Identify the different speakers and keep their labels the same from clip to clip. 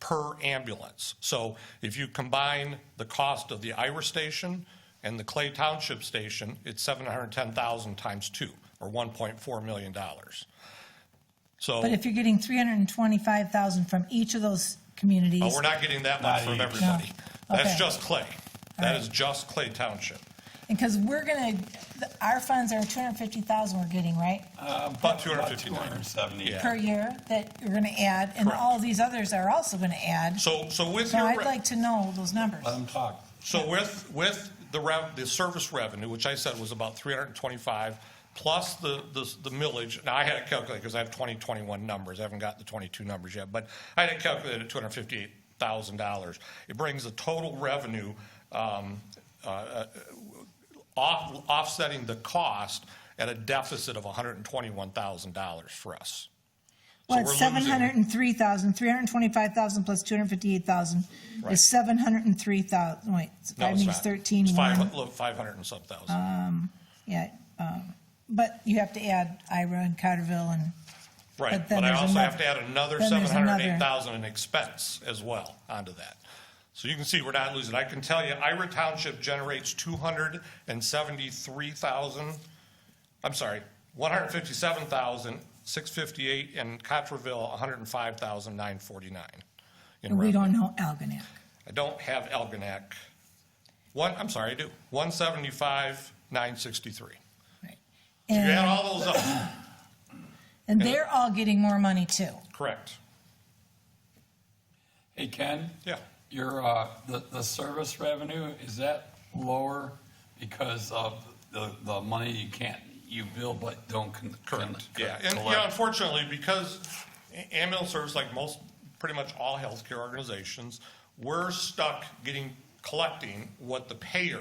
Speaker 1: per ambulance. So if you combine the cost of the Ira station and the Clay Township station, it's 710,000 times two, or 1.4 million dollars. So,
Speaker 2: But if you're getting three hundred and twenty-five thousand from each of those communities.
Speaker 1: but Oh, we're not getting that much from everybody.
Speaker 2: No.
Speaker 1: That's
Speaker 2: Okay.
Speaker 1: just Clay. That
Speaker 2: right.
Speaker 1: is just Clay Township.
Speaker 2: Because we're gonna, th- our funds are two hundred and fifty thousand we're getting, right?
Speaker 1: About 259.
Speaker 3: 270.
Speaker 1: Yeah.
Speaker 2: Per year that you're gonna add, and
Speaker 1: Correct.
Speaker 2: all these others are also gonna add.
Speaker 1: So, so with
Speaker 2: So
Speaker 1: your.
Speaker 2: I'd
Speaker 1: re-
Speaker 2: like to know those numbers.
Speaker 3: Let them talk.
Speaker 1: So with, with the rev, the service revenue, which I said was about 325, plus the, the the millage, now I had it calculated because I have 2021 numbers, I haven't got the 22 numbers yet, but I had it calculated at $258,000. It brings the total revenue um, off- offsetting the cost at a deficit of $121,000 for us.
Speaker 2: Well,
Speaker 1: we're
Speaker 2: it's seven
Speaker 1: losing-
Speaker 2: hundred and three thousand, three hundred and twenty-five thousand plus two hundred and fifty-eight thousand
Speaker 1: Right.
Speaker 2: is seven hundred and three thousand, wait,
Speaker 1: No,
Speaker 2: five
Speaker 1: it's
Speaker 2: means
Speaker 1: not.
Speaker 2: thirteen
Speaker 1: It's five-
Speaker 2: one.
Speaker 1: look, 500 and some thousand.
Speaker 2: Yeah, um, but you have to add Ira and Carterville and,
Speaker 1: Right,
Speaker 2: But then
Speaker 1: but I
Speaker 2: there's
Speaker 1: also have to
Speaker 2: another-
Speaker 1: add another
Speaker 2: then
Speaker 1: seven
Speaker 2: there's
Speaker 1: hundred
Speaker 2: another.
Speaker 1: and eight thousand in expense as well onto that. So you can see we're not losing. I can tell you Ira Township generates two hundred and seventy-three thousand, I'm sorry, one hundred and fifty-seven thousand, six fifty-eight, and Cotterville, one hundred and five thousand, nine forty-nine. in
Speaker 2: we
Speaker 1: revenue.
Speaker 2: don't know Algonac.
Speaker 1: I don't have Elginak. One, I'm sorry, I do, one seventy-five, nine sixty-three.
Speaker 2: Right.
Speaker 1: You add
Speaker 2: And,
Speaker 1: all those up,
Speaker 2: and they're all getting more money too.
Speaker 1: correct,
Speaker 3: Hey, Ken?
Speaker 1: yeah.
Speaker 3: Your, uh, the, the service revenue, is that lower because of the, the money you can't, you bill but don't con- con-
Speaker 1: Correct, yeah. And, you know,
Speaker 3: collect?
Speaker 1: unfortunately, because a- ambulance service, like most, pretty much all healthcare organizations, we're stuck getting, collecting what the payer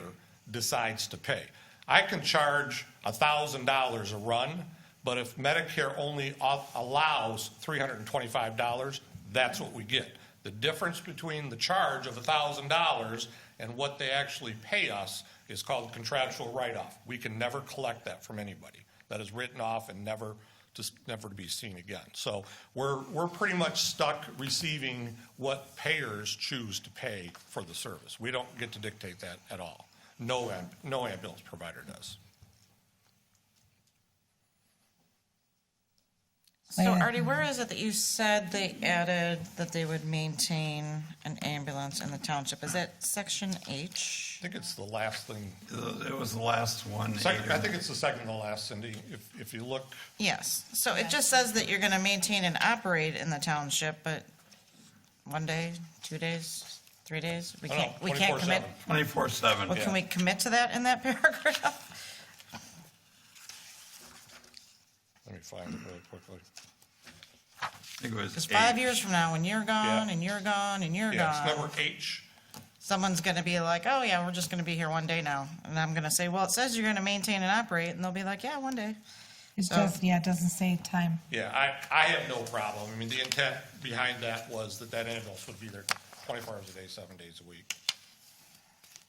Speaker 1: decides to pay. I can charge a thousand dollars a run, but if Medicare only au- allows three hundred and twenty-five dollars, that's what we get. The difference between the charge of a thousand dollars and what they actually pay us is called contractual write-off. We can never collect that from anybody that is written off and never, just never to be seen again. So we're, we're pretty much stuck receiving what payers choose to pay for the service. We don't get to dictate that at all. No, am- no ambulance provider does.
Speaker 4: So Artie, where is it that you said they added that they would maintain an ambulance in the township? Is that section H?
Speaker 1: I think it's the last thing,
Speaker 3: Uh, It was the last one.
Speaker 1: second,
Speaker 3: Adrian.
Speaker 1: I think it's the second to last, Cindy. If, if you look,
Speaker 4: Yes, so it just says that you're gonna maintain and operate in the township, but one day, two days, three days? We
Speaker 1: I don't know,
Speaker 4: can't, we can't commit,
Speaker 1: 24/7.
Speaker 3: 24/7.
Speaker 4: well, can
Speaker 3: yeah.
Speaker 4: we commit to that in that paragraph?
Speaker 1: Let me find it really quickly.
Speaker 3: I think it was
Speaker 4: Because five
Speaker 3: eight.
Speaker 4: years from now, when you're gone,
Speaker 1: Yeah.
Speaker 4: and you're gone, and you're
Speaker 1: Yeah, it's
Speaker 4: gone,
Speaker 1: number H.
Speaker 4: someone's gonna be like, oh yeah, we're just gonna be here one day now. And I'm gonna say, well, it says you're gonna maintain and operate, and they'll be like, yeah, one day.
Speaker 2: It does, yeah, it doesn't say time.
Speaker 1: Yeah, I, I have no problem. I mean, the intent behind that was that that ambulance would be there 24 hours a day, seven days a week.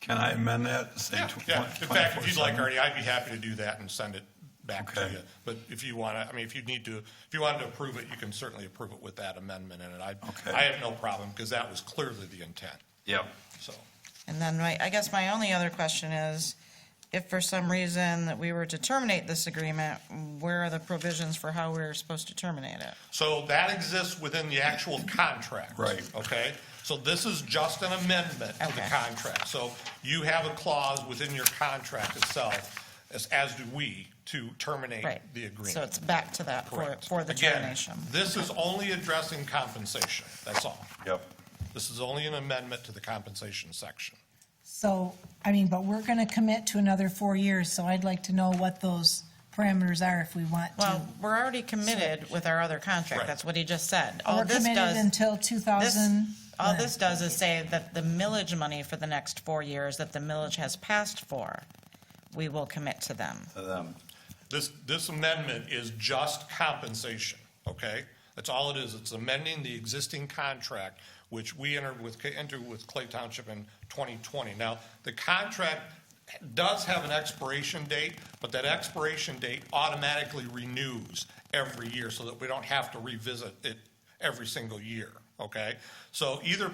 Speaker 3: Can I amend that? to say
Speaker 1: Yeah,
Speaker 3: tw-
Speaker 1: yeah. In fact, if you'd like,
Speaker 3: 24/7?
Speaker 1: Artie, I'd be happy to do that and send it back to
Speaker 3: Okay.
Speaker 1: you. But if you want to, I mean, if you need to, if you wanted to approve it, you can certainly approve it with that amendment in it. I,
Speaker 3: Okay.
Speaker 1: I have no problem, because that was clearly the intent,
Speaker 3: Yep.
Speaker 1: so.
Speaker 4: And then my, I guess my only other question is, if for some reason that we were to terminate this agreement, where are the provisions for how we're supposed to terminate it?
Speaker 1: So that exists within the actual contract.
Speaker 3: Right.
Speaker 1: Okay? So this is just an amendment to the
Speaker 4: Okay.
Speaker 1: contract. So you have a clause within your contract itself, as, as do we, to terminate
Speaker 4: Right.
Speaker 1: the agreement.
Speaker 4: So it's back to that for,
Speaker 1: Correct.
Speaker 4: for the
Speaker 1: Again,
Speaker 4: termination.
Speaker 1: This is only addressing compensation, that's all.
Speaker 3: Yep.
Speaker 1: This is only an amendment to the compensation section.
Speaker 2: So, I mean, but we're gonna commit to another four years, so I'd like to know what those parameters are if we want to.
Speaker 4: Well, we're already committed with our other contract.
Speaker 1: Right.
Speaker 4: That's what he just said. All
Speaker 2: We're
Speaker 4: this
Speaker 2: committed
Speaker 4: does,
Speaker 2: until two
Speaker 4: this,
Speaker 2: thousand.
Speaker 4: all this does is say that the millage money for the next four years that the millage has passed for, we will commit to them.
Speaker 3: To them.
Speaker 1: This, this amendment is just compensation, okay? That's all it is. It's amending the existing contract, which we entered with, entered with Clay Township in 2020. Now, the contract does have an expiration date, but that expiration date automatically renews every year so that we don't have to revisit it every single year, okay? So either